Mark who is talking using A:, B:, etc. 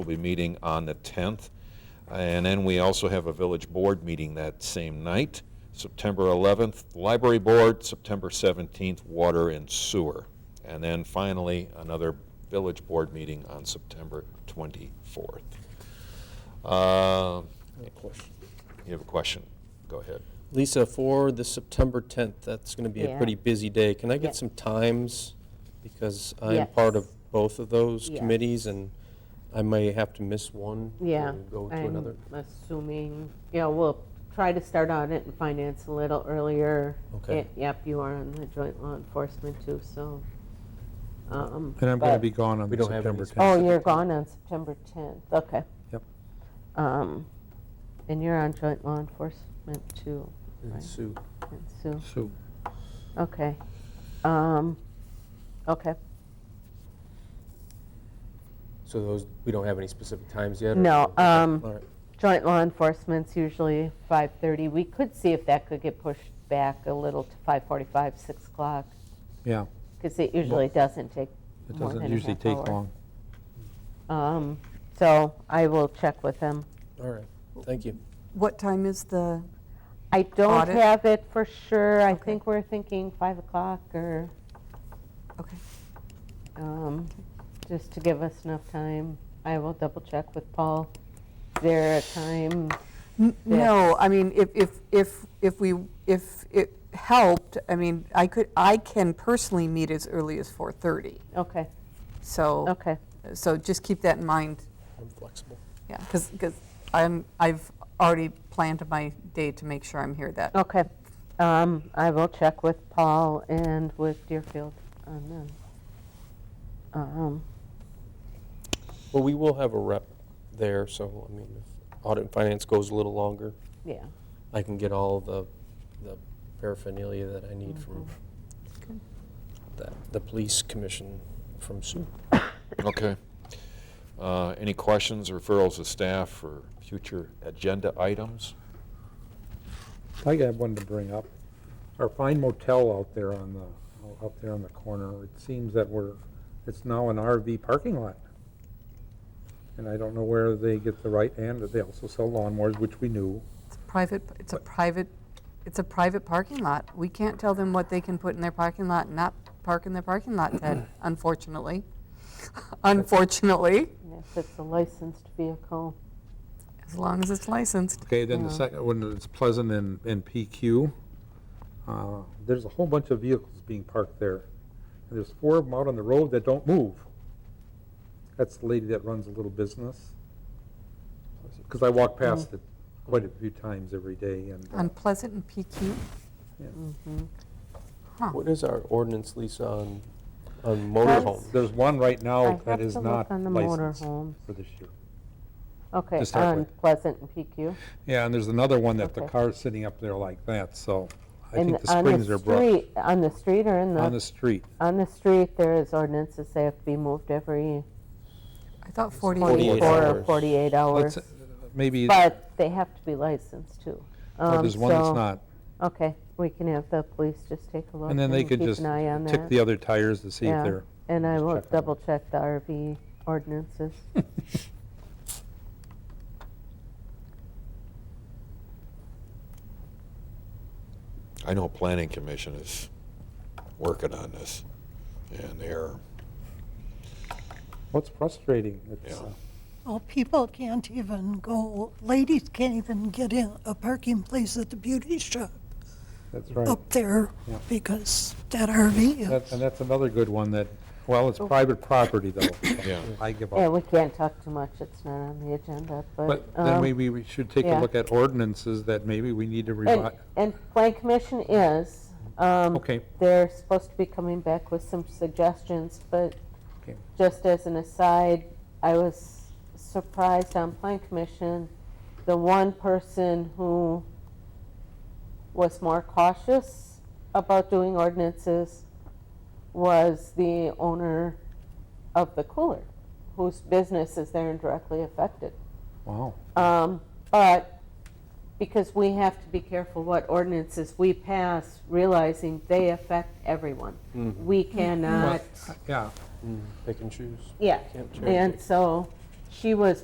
A: We'll be meeting on the 10th. And then we also have a village board meeting that same night, September 11th, library board, September 17th, water and sewer. And then finally, another village board meeting on September 24th. Uh, You have a question? Go ahead.
B: Lisa, for the September 10th, that's going to be a
C: Yeah.
B: pretty busy day. Can I
C: Yeah.
B: get some times? Because I'm part
C: Yes.
B: of both of those
C: Yes.
B: committees, and I may have to miss one
C: Yeah.
B: and go to
C: I'm
B: another.
C: Assuming, yeah, we'll try to start audit and finance a little earlier.
B: Okay.
C: It- Yep, you are on the joint law enforcement too, so. um,
D: And I'm going to
C: but-
D: be gone on
B: We
D: the
B: don't have any
D: September
B: specific-
D: 10th.
C: Oh, you're gone on September 10th, okay.
D: Yep.
C: Um, And you're on joint law enforcement too,
B: And
C: Right.
B: Sue,
C: and Sue,
D: So
C: okay. Um, Okay,
B: so those, we don't have any specific times yet? or-
C: no,
B: Okay,
C: um,
B: All right,
C: Joint law enforcement's usually 5:30. We could see if that could get pushed back a little to 5:45, 6 o'clock,
D: Yeah,
C: because it usually doesn't take
D: it
C: more than
D: doesn't
C: a
D: usually
C: half
D: take
C: hour.
D: long.
C: Um, So I will check with him.
B: all right, thank you.
E: What time is the,
C: I don't
E: Audit?
C: have it for sure. I
E: Okay.
C: think we're thinking 5 o'clock or,
E: okay,
C: um, just to give us enough time. I will double check with Paul. Is there a time?
E: N- no, I mean, if, if, if, if we, if it helped, I mean, I could, I can personally meet as early as 4:30,
C: Okay,
E: so,
C: okay.
E: so just keep that in mind,
B: I'm flexible.
E: yeah, because, I'm, I've already planned my day to make sure I'm here that.
C: Okay. Um, I will check with Paul and with Deerfield on that. Um,
B: Well, we will have a rep there, so, I mean, if audit and finance goes a little longer,
C: yeah.
B: I can get all the, the paraphernalia that I need from
E: Good.
B: that, the police commission from Sue.
A: Okay. Uh, Any questions, referrals of staff for future agenda items?
D: I got one to bring up. Our fine motel out there on the, out there on the corner, it seems that we're, it's now an RV parking lot. And I don't know where they get the right and they also sell lawnmowers, which we knew.
E: It's a private, it's a private, it's a private parking lot. We can't tell them what they can put in their parking lot and not park in their parking lot, Ted, unfortunately. Unfortunately,
C: And If it's a licensed vehicle,
E: as long as it's licensed.
D: Okay, then the
C: Yeah.
D: second one is Pleasant and, and PQ. Uh, There's a whole bunch of vehicles being parked there. And there's four of them out on the road that don't move. That's the lady that runs a little business. Because I walk
C: Mm-hmm.
D: past it quite a few times every day and. uh,
C: Um,
E: Unpleasant and PQ.
B: What is our ordinance, Lisa, on, on
C: That's-
B: motorhomes?
D: There's one right
C: I
D: now
C: have
D: Oh, that is
C: to look
D: not
C: on the
D: licensed
C: motorhomes.
D: for this year.
C: Okay,
D: To start
C: on
D: with.
C: Pleasant and PQ.
D: Yeah, and there's another one that the
C: Okay.
D: car's sitting up there like that, so I
C: And
D: think the springs are broke.
C: street- On the street or in
D: On
C: the,
D: the street.
C: on the street, there is ordinances they have to be moved every
E: I thought 48.
B: 48
C: 24 or
B: hours.
C: 48
D: Let's,
C: hours.
D: uh, Maybe, oh,
C: But they have to be licensed too. Um,
D: there's one that's
C: so-
D: not.
C: Okay, we can have the police just take a look.
D: And then they could
C: keep
D: just
C: an eye on
D: tick
C: that.
D: the other tires to see
C: Yeah.
D: if they're,
C: And I
D: Just
C: will
D: check on
C: double check the RV ordinances.
A: I know Planning Commission is working on this, and they're,
D: what's frustrating? It's,
A: Yeah.
D: uh,
F: Well, people can't even go, ladies can't even get in a parking place at the beauty shop
D: That's right.
F: up there
D: Yeah.
F: because that RV
D: That's-
F: is.
D: And that's another good one that, well, it's private property though.
A: Yeah.
D: I give
C: Oh. Yeah,
D: up.
C: we can't talk too much, it's not on the agenda, but.
D: But then
C: um,
D: maybe we should take a
C: yeah.
D: look at ordinances that maybe we need to
C: And,
D: revise.
C: and Plan Commission is. um,
D: Okay.
C: They're supposed to be coming back with some suggestions, but
D: Okay.
C: just as an aside, I was surprised on Plan Commission, the one person who was more cautious about doing ordinances was the owner of the cooler, whose business is there and directly affected.
D: Wow.
C: Um, But because we have to be careful what ordinances we pass, realizing they affect everyone. We cannot,
D: Yeah,
B: Mm, Pick and choose.
C: yeah.
B: Can't cherry
C: And so she was